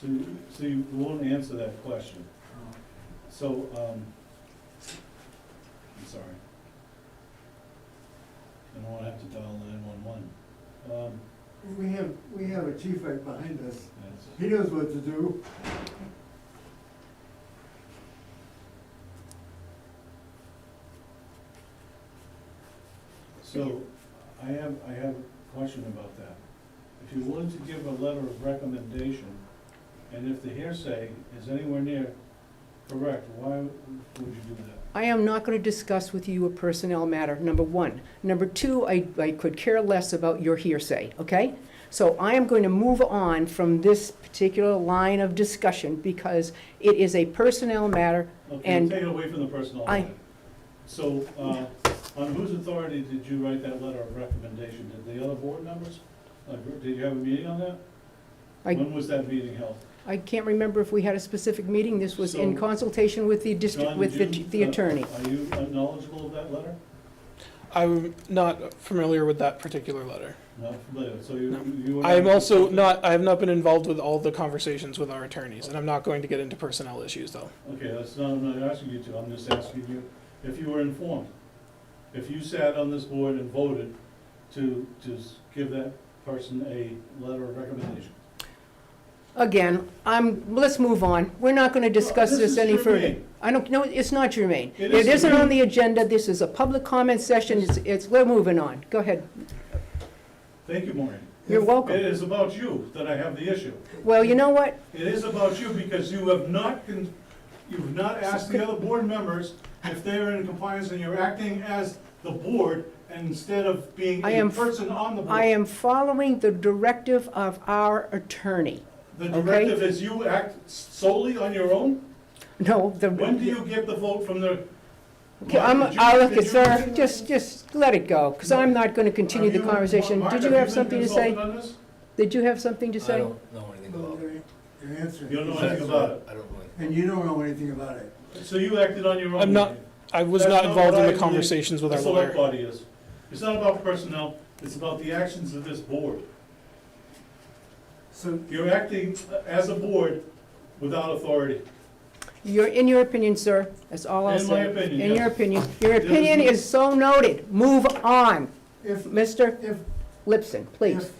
So, you- so you won't answer that question. So, um, I'm sorry. I don't wanna have to dial nine-one-one. Um, We have, we have a chief right behind us. that's, He knows what to do. so, I have, I have a question about that. If you're willing to give a letter of recommendation, and if the hearsay is anywhere near correct, why would you do that? I am not going to discuss with you a personnel matter, number one. Number two, I, I could care less about your hearsay, okay? So I am going to move on from this particular line of discussion because it is a personnel matter. Okay, And- take it away from the personnel. I- matter. So, uh, on whose authority did you write that letter of recommendation? Did the other board members? Like, Did you have a meeting on that? I, When was that meeting held? I can't remember if we had a specific meeting. This was in So- consultation with the district, John, with the did you- the uh, attorney. Are you knowledgeable of that letter? I'm not familiar with that particular letter. Not familiar, so you, No. you. were I'm also not, I have not been involved with all the conversations with our attorneys, and I'm not going to get into personnel issues, though. Okay, that's not, I'm not asking you to, I'm just asking you if you were informed. If you sat on this board and voted to, to s- give that person a letter of recommendation. Again, I'm, let's move on. We're not going to discuss This this is any your further. meeting. I don't, no, it's not germane. It is It isn't germane. on the agenda. This is a public comment session. It's, it's, we're moving on. Go ahead. Thank you, Maureen. You're It welcome. is about you that I have the issue. Well, you know what? It is about you because you have not, con- you've not asked the other board members if they are in compliance and you're acting as the board instead of being I a am- person on the board. I am following the directive of our attorney. The okay. directive is you act solely on your own? No, the. When do you get the vote from the? Okay, I'm, Did you- I'll look did at, you- sir, just, just let it go, because I'm not going to continue Are the you- conversation. Mark, Did you have something to been say? consulted on this? Did you have something to I say? don't know anything Well, about it. Your your answer. You don't know is anything yes. about it. I don't know anything. And you don't know anything about it. So you acted on your own? I'm not- I was That's not not involved what I in the believe. conversations with The our select lawyer. body is. It's not about personnel, it's about the actions of this board. So, You're acting as a board without authority. Your, in your opinion, sir, that's all I'll In my say. opinion, In your yes. opinion. Your There is opinion no- is so noted. Move on. if, Mr. if, Lipson, please. if,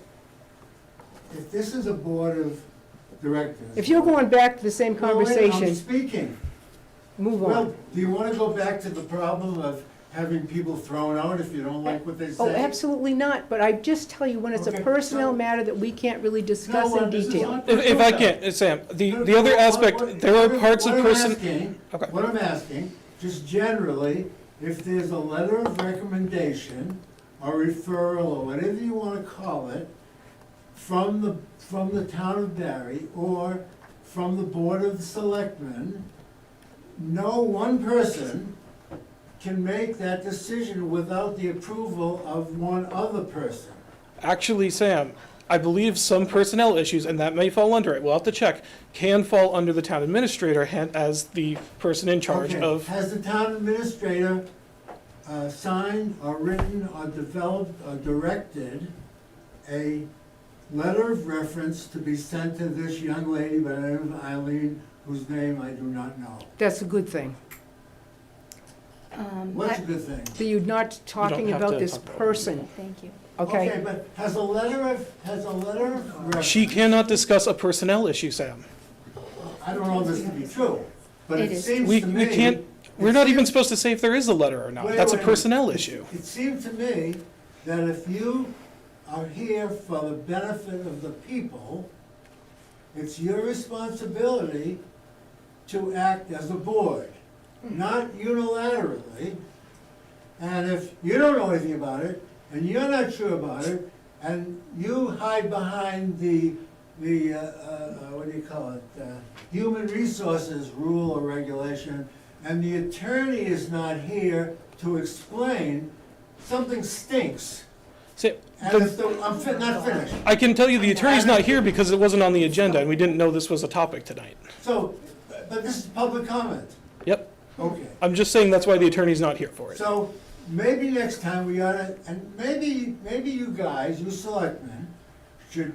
if this is a board of directors. If you're going back to the same Well, wait, I'm conversation, speaking. move Well, on. do you wanna go back to the problem of having people thrown out if you don't like what they say? Oh, absolutely not, but I just tell you, when it's a Okay, personnel so- matter that we can't really discuss No, in uh, this is detail. not If, if I personnel. can, uh, Sam, the, the other aspect, there are parts of What I'm person, asking- Okay. What I'm asking, just generally, if there's a letter of recommendation or referral or whatever you wanna call it, from the, from the town of Barry or from the Board of Selectmen, no one person can make that decision without the approval of one other person. actually, Sam, I believe some personnel issues, and that may fall under it, we'll have to check, can fall under the town administrator han- as the person in charge Okay, of, Has the town administrator uh, signed or written or developed or directed a letter of reference to be sent to this young lady by the name of Eileen, whose name I do not know? That's a good thing. Um, What's a I- good thing? So you're not talking have about to this talk about it. person, Thank you. okay? but has a letter of, has a letter of reference? she cannot discuss a personnel issue, Sam. I don't know this to be true, but It it is. seems We, to we me. can't, we're not even supposed to say if there is a letter or not. Wait, That's a wait. personnel issue. It seemed to me that if you are here for the benefit of the people, it's your responsibility to act as a board, not unilaterally. And if you don't know anything about it, and you're not sure about it, and you hide behind the, the, uh, uh, uh, what do you call it? uh, Human resources rule or regulation, and the attorney is not here to explain, something stinks. Say- And the- if the, I'm fin- not finished. I can tell you the attorney's not here because it wasn't on the agenda and we didn't know this was a topic tonight. So, but this is public comment. Yep, Okay. I'm just saying that's why the attorney's not here for it. So maybe next time we ought to, and maybe, maybe you guys, you selectmen, should